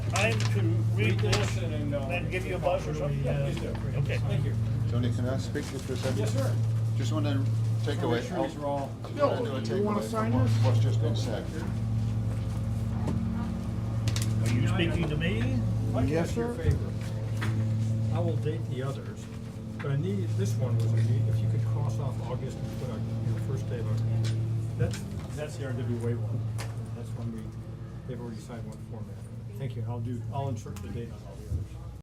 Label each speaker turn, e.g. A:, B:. A: time to read this
B: and, uh,
A: and give you a buzz or something?
B: Yeah, please do.
A: Okay.
B: Thank you.
C: Tony, can I speak to you for a second?
B: Yes, sir.
C: Just want to take
B: Wanna
C: away.
B: make sure these are all-
C: just
D: Bill,
C: wanna do a
D: you wanna
C: takeaway from
D: sign
C: what-
D: this?
C: What's just been said.
A: Are you speaking to me?
B: Mike,
D: Yes,
B: ask your
D: sir.
B: favor. I will date the others, but I need, this one was, a- if you could cross off August and put our, your first day of October. That's, that's the RWA one. That's one we, they've already signed one format. Thank you. I'll do, I'll insert the date on all